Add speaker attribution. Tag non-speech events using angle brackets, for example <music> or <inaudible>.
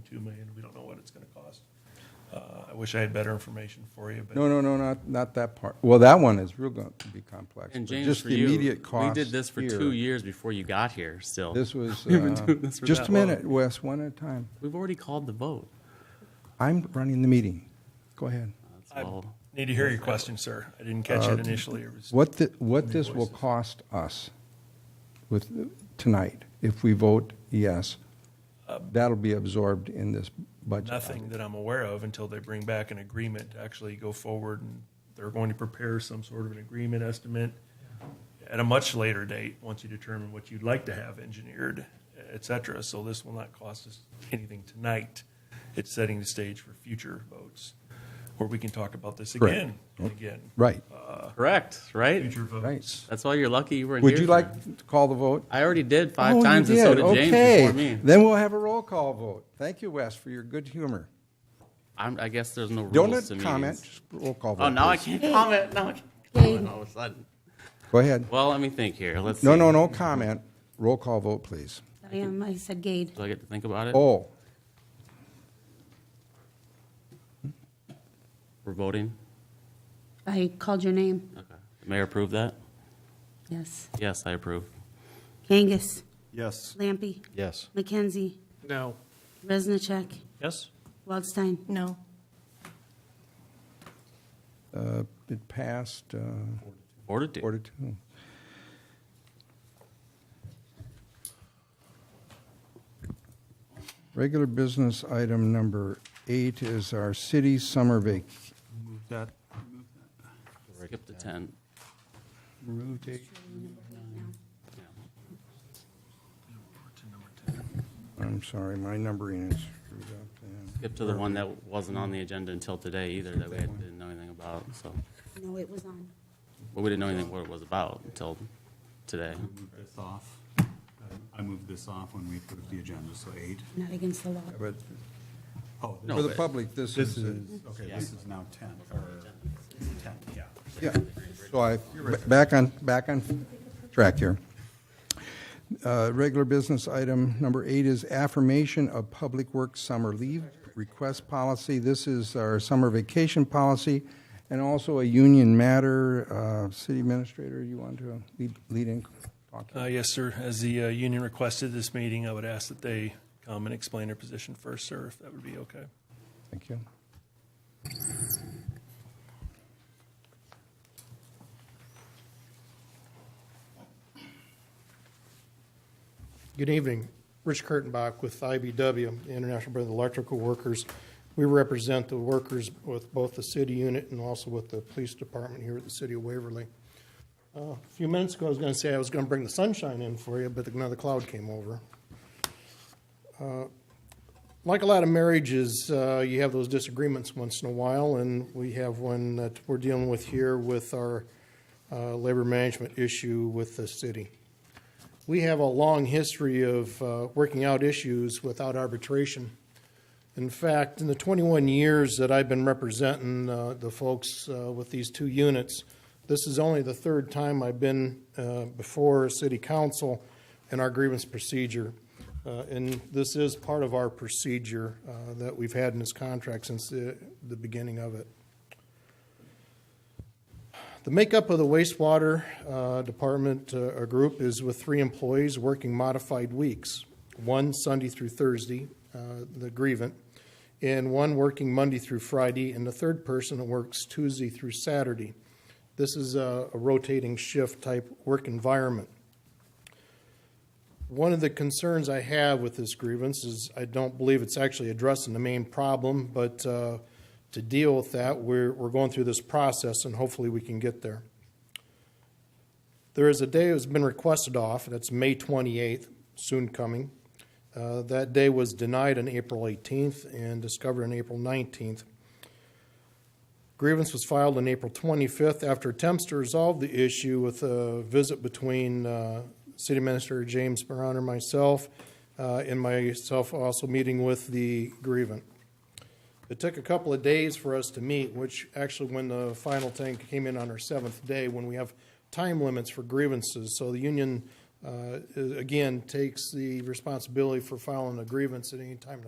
Speaker 1: two million, we don't know what it's gonna cost. Uh, I wish I had better information for you,
Speaker 2: No,
Speaker 1: but
Speaker 2: no, no, not, not that part. Well, that one is real going to be complex.
Speaker 3: And
Speaker 2: but
Speaker 3: James,
Speaker 2: just
Speaker 3: for
Speaker 2: the
Speaker 3: you,
Speaker 2: immediate
Speaker 3: we
Speaker 2: cost
Speaker 3: did this for
Speaker 2: here,
Speaker 3: two years before you got here still.
Speaker 2: This was,
Speaker 3: <laughs> We've been
Speaker 2: uh,
Speaker 3: doing this for
Speaker 2: just
Speaker 3: that
Speaker 2: a
Speaker 3: long.
Speaker 2: minute, Wes, one at a time.
Speaker 3: We've already called the vote.
Speaker 2: I'm running the meeting. Go ahead.
Speaker 3: That's
Speaker 1: I
Speaker 3: all.
Speaker 1: need to hear your question, sir. I didn't catch it initially. It was-
Speaker 2: Uh, What, the- what this will cost us with, tonight, if we vote yes, that'll be absorbed in this budget.
Speaker 1: Nothing that I'm aware of until they bring back an agreement to actually go forward and they're going to prepare some sort of an agreement estimate at a much later date, once you determine what you'd like to have engineered, et cetera. So this will not cost us anything tonight. It's setting the stage for future votes where we can talk about this
Speaker 2: Correct. Oh.
Speaker 1: again and again. Uh,
Speaker 2: Right,
Speaker 3: Correct, right?
Speaker 1: Future
Speaker 2: Right.
Speaker 1: votes.
Speaker 3: That's why you're lucky you weren't here.
Speaker 2: Would you
Speaker 3: for
Speaker 2: like
Speaker 3: it.
Speaker 2: to call the vote?
Speaker 3: I already did five
Speaker 2: Oh, you
Speaker 3: times, and so
Speaker 2: did.
Speaker 3: did
Speaker 2: Okay.
Speaker 3: James before me.
Speaker 2: Then we'll have a roll call vote. Thank you, Wes, for your good humor.
Speaker 3: I'm, I guess there's no rules to
Speaker 2: Don't
Speaker 3: meetings.
Speaker 2: comment, just roll call vote.
Speaker 3: Oh, now I
Speaker 2: please.
Speaker 3: can't comment. Now I can't comment all of a sudden.
Speaker 2: Go ahead.
Speaker 3: Well, let me think here. Let's.
Speaker 2: No,
Speaker 3: see.
Speaker 2: no, no comment. Roll call vote, please.
Speaker 4: I am, I said Gade.
Speaker 3: Do I get to think about it?
Speaker 2: Oh,
Speaker 3: We're voting.
Speaker 4: I called your name,
Speaker 3: Okay. The mayor approved that.
Speaker 4: yes.
Speaker 3: Yes, I approve.
Speaker 4: Kangas,
Speaker 5: Yes.
Speaker 4: Lampy,
Speaker 5: Yes.
Speaker 4: McKenzie,
Speaker 6: No.
Speaker 4: Resnichek,
Speaker 6: Yes?
Speaker 4: Waldstein.
Speaker 7: No.
Speaker 2: uh, it passed uh,
Speaker 3: Four to two.
Speaker 2: four to two. Regular business item number eight is our city summer vac,
Speaker 3: Skip to ten.
Speaker 2: I'm sorry, my numbering is screwed up.
Speaker 3: Skip to the one that wasn't on the agenda until today either, that we had- didn't know anything about, so.
Speaker 4: No, it was on.
Speaker 3: But we didn't know anything what it was about until today.
Speaker 5: Move this off. I moved this off when we put up the agenda, so eight.
Speaker 4: Not against the law.
Speaker 2: But
Speaker 5: Oh,
Speaker 3: No,
Speaker 2: for the
Speaker 3: but-
Speaker 2: public, this
Speaker 5: This
Speaker 2: is, a-
Speaker 5: is, okay, this is now 10, or 10, yeah.
Speaker 2: yeah. So I, back on, back on track here. Uh, Regular business item number eight is affirmation of Public Works Summer Leave Request Policy. This is our summer vacation policy, and also a union matter. Uh, City Administrator, you want to lead, lead in? talk?
Speaker 1: Uh, yes, sir. As the, uh, union requested this meeting, I would ask that they come and explain their position first, sir, if that would be okay.
Speaker 2: Thank you.
Speaker 6: Good evening. Rich Kurtenbach with IBW, the International Brotherhood of Electrical Workers. We represent the workers with both the city unit and also with the police department here at the city of Waverly. Uh, A few minutes ago, I was going to say I was going to bring the sunshine in for you, but another cloud came over. Uh, Like a lot of marriages, uh, you have those disagreements once in a while, and we have one that we're dealing with here with our uh, labor management issue with the city. We have a long history of uh, working out issues without arbitration. In fact, in the 21 years that I've been representing uh, the folks uh, with these two units, this is only the third time I've been uh, before City Council in our grievance procedure. Uh, And this is part of our procedure uh, that we've had in this contract since the the beginning of it. The makeup of the wastewater uh, department uh, or group is with three employees working modified weeks, one Sunday through Thursday, uh, the grievant, and one working Monday through Friday, and the third person works Tuesday through Saturday. This is a a rotating shift type work environment. One of the concerns I have with this grievance is I don't believe it's actually addressing the main problem, but uh, to deal with that, we're, we're going through this process and hopefully we can get there. There is a day that's been requested off, and that's May 28th, soon coming. Uh, That day was denied on April 18th and discovered on April 19th. Grievance was filed on April 25th after attempts to resolve the issue with a visit between uh, City Minister James Brown and myself, uh, and myself also meeting with the grievant. It took a couple of days for us to meet, which actually, when the final thing came in on our seventh day, when we have time limits for grievances, so the union, uh, again, takes the responsibility for filing a grievance at any time